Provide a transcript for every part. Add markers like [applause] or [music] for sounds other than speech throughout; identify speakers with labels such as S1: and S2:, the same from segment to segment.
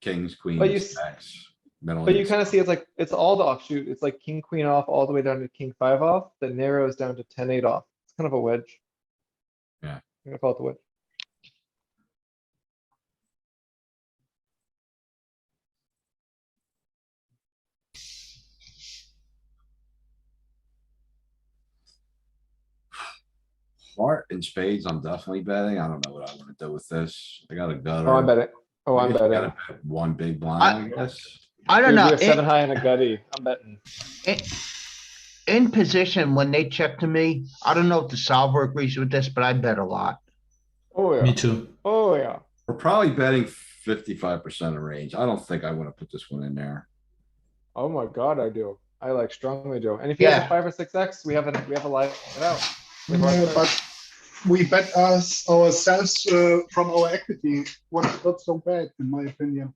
S1: kings,
S2: you
S1: queens,
S2: s-
S1: jacks, middle.
S2: But you
S1: eights.
S2: kind of see it's like, it's all the offshoot. It's like king, queen off, all the way down to king five off, that narrows down to ten, eight off. It's kind of a wedge.
S1: Yeah.
S2: I'm gonna call it the wedge.
S1: Heart and spades, I'm definitely betting. I don't know what I wanna do with this. I got a gutter.
S2: Oh, I'm betting. Oh,
S1: I
S2: I'm
S1: guess you
S2: betting.
S1: gotta bet One big blind, I guess.
S3: I don't
S2: Dude, we
S3: know,
S2: have seven
S3: in,
S2: high and a gutty. I'm betting.
S3: in position, when they check to me, I don't know if the solver agrees with this, but I bet a lot.
S2: Oh, yeah.
S4: Me too.
S2: Oh, yeah.
S1: We're probably betting fifty-five percent of range. I don't think I wanna put this one in there.
S2: Oh my god, I do. I like strongly do. And if you have a
S3: Yeah.
S2: five or six X, we have a, we have a live get out. Like,
S5: Yeah,
S2: right-
S5: but we bet us ourselves uh, from our equity. What's not so bad, in my opinion.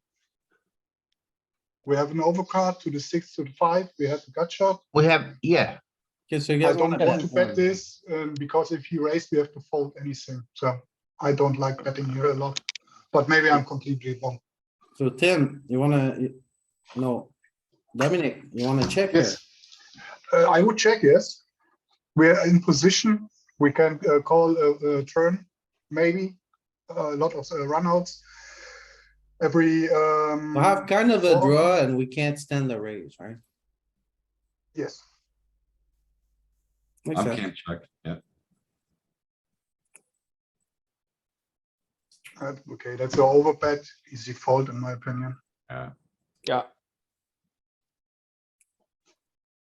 S5: We have an overcard to the six to the five. We have a gut shot.
S3: We have, yeah,
S6: Okay, so you
S5: I
S6: guys
S5: don't
S6: wanna
S5: want
S6: bet?
S5: to bet this um, because if he raised, we have to fold anything. So I don't like betting here a lot. But maybe I'm completely wrong.
S6: So Tim, you wanna, you- no, Dominic, you wanna check here?
S5: Yes. Uh, I would check, yes. We're in position. We can uh, call a, a turn, maybe. A lot of uh, runouts. Every, um,
S6: We have kind of a
S3: Oh.
S5: Fold.
S6: draw and we can't stand the raise, right?
S5: yes.
S6: Makes
S1: I
S6: sense.
S1: can't check, yeah.
S5: Uh, Okay, that's an overbet, easy fold in my opinion.
S2: Yeah.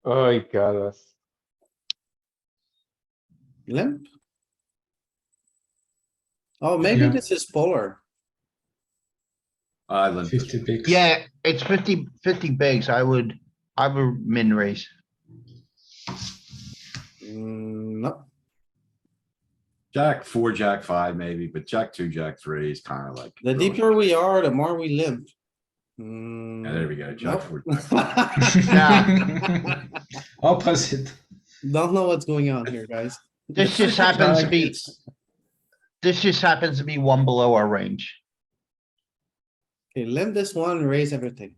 S2: Oh, you got us.
S6: Limp? Oh, maybe
S4: Yeah.
S6: this is polar.
S1: I limped this
S4: Fifty bigs. [laughs]
S3: yeah, it's 50 50 bigs, I would, I would min raise.
S6: Mm, no,
S1: Jack four, jack five maybe, but jack two, jack three is kinda like.
S6: the
S1: really-
S6: deeper we are, the more we limp. Mm.
S1: Yeah,
S6: [laughs]
S1: there we go, jack
S6: Nope.
S1: four. jack five.
S3: Yeah.
S4: Opposite.
S6: Don't know what's going on here, guys.
S3: This
S6: [laughs]
S3: just happens to
S1: Jack,
S3: be,
S1: it's-
S3: this just happens to be one below our range.
S6: Okay, limp this one, raise everything.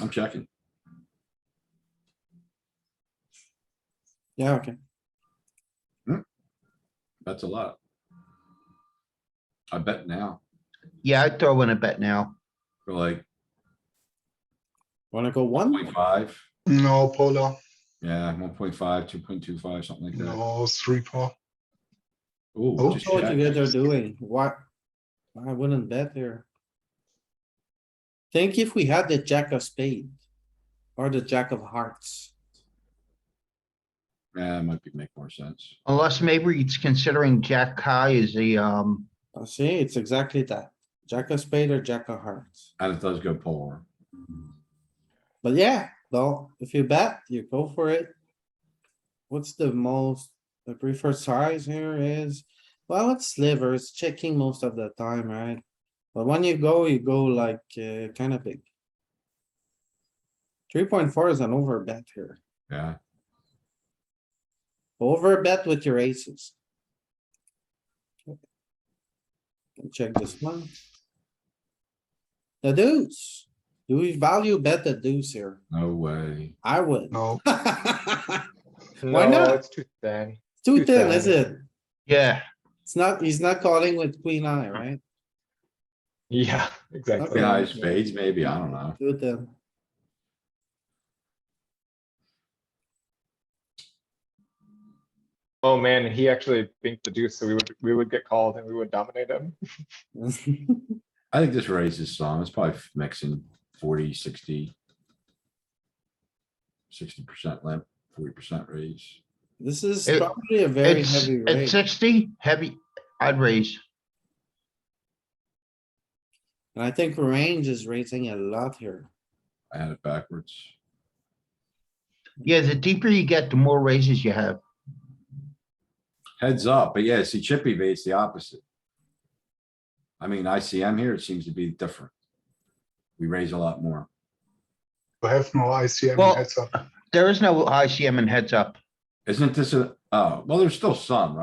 S1: I'm checking.
S6: Yeah, okay.
S1: That's a lot. I bet now,
S3: Yeah, I'd throw in a bet now.
S1: we're like
S6: Wanna go one?
S1: point five,
S5: No, polar,
S1: yeah, one point five, two point two five, something like that.
S5: no, three, four.
S1: Ooh,
S5: Oh.
S1: just
S6: know what you
S1: check.
S6: guys are doing. Why? I wouldn't bet there. Think if we had the jack of spade or the jack of hearts.
S1: Yeah, it might be, make more sense.
S3: Unless maybe it's considering Jack High is the, um,
S6: I see, it's exactly that. Jack of spade or jack of hearts.
S1: And it does go polar.
S6: But yeah, though, if you bet, you go for it. What's the most, the preferred size here is, well, it's slivers, checking most of the time, right? But when you go, you go like, uh, kinda big. Three point four is an over bet here.
S1: Yeah,
S6: Over bet with your aces. Check this one. The deuce. Do we value bet the deuce here?
S1: no way.
S6: I would. [laughs]
S5: no.
S6: Why
S2: No,
S6: not?
S2: It's too thin.
S6: Too thin, is it?
S3: yeah,
S6: It's not, he's not calling with queen eye, right?
S2: Yeah, [laughs] exactly.
S5: Oh,
S6: Okay.
S1: Yeah, spades maybe, I don't know.
S6: Too thin.
S2: Oh, man, he actually binked the deuce, so we would, we would get called and we would dominate him.
S1: I think this raises some, it's probably mixing 40, 60. Sixty percent limp, forty percent raise.
S6: [laughs] This is
S3: It-
S6: probably a very
S3: it's,
S6: heavy
S3: at
S6: raise.
S3: sixty, heavy, I'd raise.
S6: And I think range is raising a lot here.
S1: I had it backwards.
S3: Yeah, the deeper you get, the more raises you have.
S1: Heads up, but yeah, see Chippy V, it's the opposite. I mean, ICM here, it seems to be different. We raise a lot more.
S5: We have no ICM
S3: Well-
S5: heads up.
S3: There is no ICM and heads up.
S1: Isn't this a, Oh, well, there's still some, right?